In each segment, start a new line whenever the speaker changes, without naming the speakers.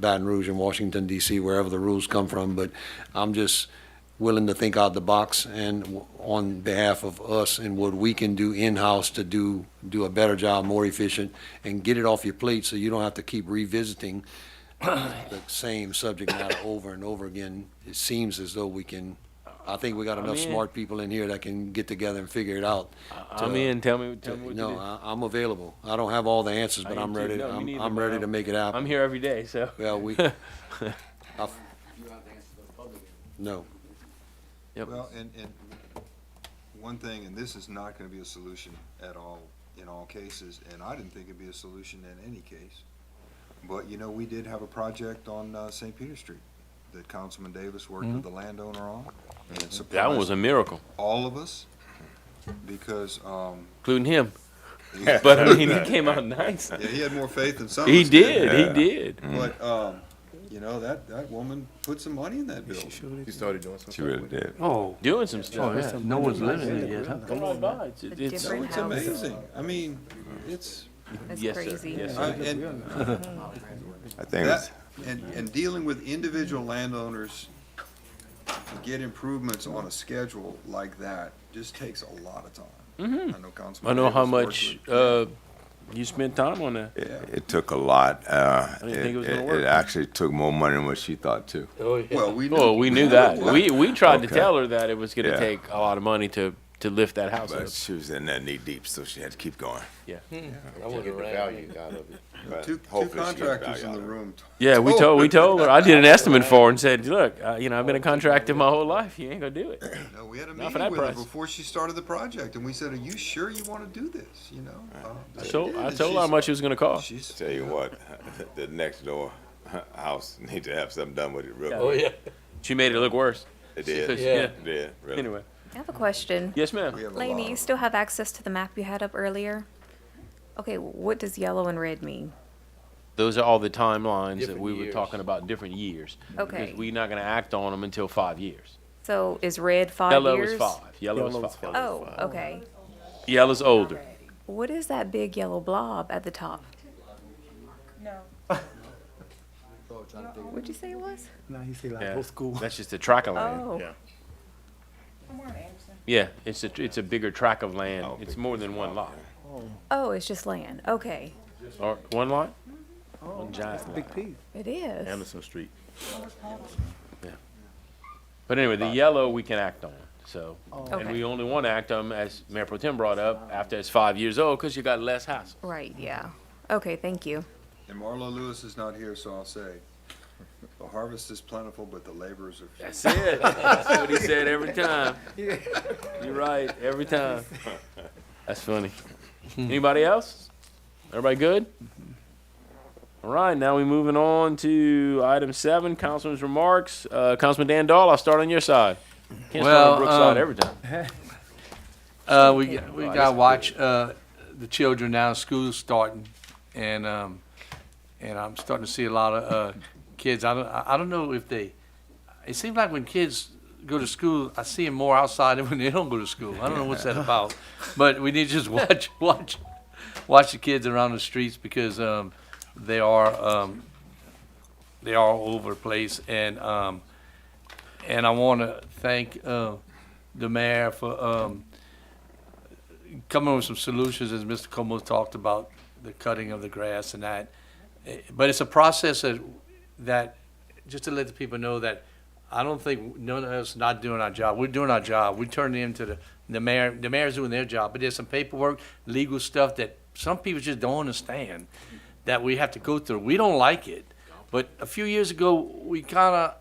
Baton Rouge and Washington DC, wherever the rules come from, but I'm just willing to think out the box and w- on behalf of us and what we can do in-house to do, do a better job, more efficient, and get it off your plate so you don't have to keep revisiting the same subject matter over and over again. It seems as though we can, I think we got enough
in.
smart people in here that can get together and figure it out.
I'm
to-
in. Tell me, tell me what you
No,
do.
I, I'm available. I don't have all the answers, but
I
I'm
do too.
ready,
No, me
I'm,
neither,
I'm
but
ready
I'm-
to make it happen.
I'm here every day, so
Well, we, I've- no,
Well, and, and one thing, and this is not gonna be a solution at all, in all cases, and I didn't think it'd be a solution in any case. But, you know, we did have a project on, uh, St. Peter Street that Councilman Davis worked with the landowner on. And
that one was
surprised
a miracle,
all of us, because, um,
including him. But I mean, he came out nice.
yeah, he had more faith than some of
He
us did.
did. He did.
But, um, you know, that, that woman put some money in that bill.
He started doing some
She
stuff
really
with it.
did.
Oh,
Doing some
oh,
stuff.
yeah, no one's living in it yet, huh?
Come on by. It's, it's,
So
different-
it's
house.
amazing. I mean, it's,
That's
yes, sir.
crazy.
Yes,
I-
sir.
and
I think it was,
That, and, and dealing with individual landowners to get improvements on a schedule like that just takes a lot of time. I know
I
Councilman.
know how
Davis worked
much
with-
uh, you spent time on that.
it, it took a lot. Uh,
I didn't think it was gonna
it-
work.
It actually took more money than what she thought too.
Oh yeah.
Well, we knew.
Oh, we knew that. We we tried to
Okay.
tell her that it was going to
Yeah.
take a lot of money to to lift that house up.
But she was in there knee deep, so she had to keep going.
Yeah.
I want to get the value out of it.
But
Two, two
hopefully she got
contractors
value
in
out
the
of it.
room.
Yeah, we
Oh.
told we told her. I did an estimate for her and said, "Look, uh, you know, I've been a contractor my whole life. You ain't gonna do it."
No, we had a
Not for
meeting
that
with her
price.
before she started the project and we said, are you sure you want to do this, you know? Uh,
I
she
told
did,
I
and
told her how
she's-
much it was gonna cost.
She's,
Tell you what, the next door house need to have something done with it real
Oh,
quick.
She made it look worse.
It did.
Yeah.
It did, really.
Anyway,
I have a question.
yes, ma'am.
we have a lot
Lainey, you
of-
still have access to the map you had up earlier? Okay, what does yellow and red mean?
Those are all the timelines that
Different
we were
years.
talking about, different years.
Okay.
Because we're not gonna act on them until five years.
So is red five
Yellow
years?
is five, yellow is five.
Oh, okay.
Yellow's older.
What is that big yellow blob at the top?
Oh,
No. What'd you say it was?
Now he say like
Yeah.
old school.
That's just a track of land.
Oh,
Yeah, it's a, it's a bigger track of land. It's more than one lot.
oh, it's just land. Okay,
Or, one lot?
Oh.
One giant lot.
Big piece.
it is.
Anderson Street.
But anyway, the yellow we can act on, so. And
Oh. Okay.
we only wanna act on, as Mayor Pro Tem brought up, after it's five years old, cause you got less hassle.
Right, yeah. Okay, thank you.
And Marlo Lewis is not here, so I'll say, the harvest is plentiful, but the laborers are few.
That's it. That's what he said every time. You're right, every time. That's funny. Anybody else? Everybody good? All right, now we moving on to item seven, Councilman's remarks. Uh, Councilman Dan Dahl, I'll start on your side. Can't start
Well,
on Brooke's side
um,
every time.
Uh, we, got- we
Well,
gotta
that's
watch, uh, the children now, school's starting, and, um, and I'm starting to see a lot of, uh, kids, I don't, I I don't know if they, it seems like when kids go to school, I see them more outside than when they don't go to school, I don't know what's that about, but we need to just watch, watch, watch the kids around the streets, because, um, they are, um, they are all over the place, and, um, and I wanna thank, uh, the mayor for, um, coming up with some solutions, as Mr. Como talked about, the cutting of the grass and that. Eh, But it's a process that, that, just to let the people know that I don't think none of us not doing our job. We're doing our job. We turn it into the, the mayor, the mayor's doing their job, but there's some paperwork, legal stuff that some people just don't understand that we have to go through. We don't like it. But a few years ago, we kinda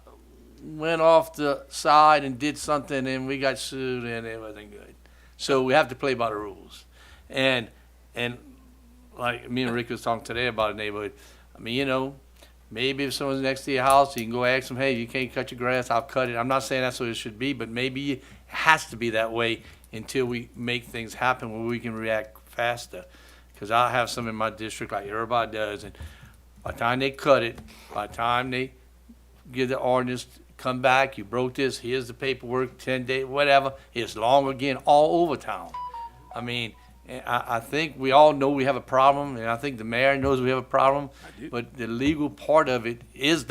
went off the side and did something and we got sued and it wasn't good. So we have to play by the rules. And and like me and Rick was talking today about a neighborhood. I mean, you know, maybe if someone's next to your house, you can go ask them, hey, you can't cut your grass, I'll cut it. I'm not saying that's what it should be, but maybe it has to be that way until we make things happen where we can react faster. Because I have some in my district like everybody does, and by the time they cut it, by the time they give the ordinance, come back, you broke this, here's the paperwork, ten day, whatever, it's long again, all over town. I mean, And I, I think we all know we have a problem, and I think the mayor knows we have a problem. But the legal part of it is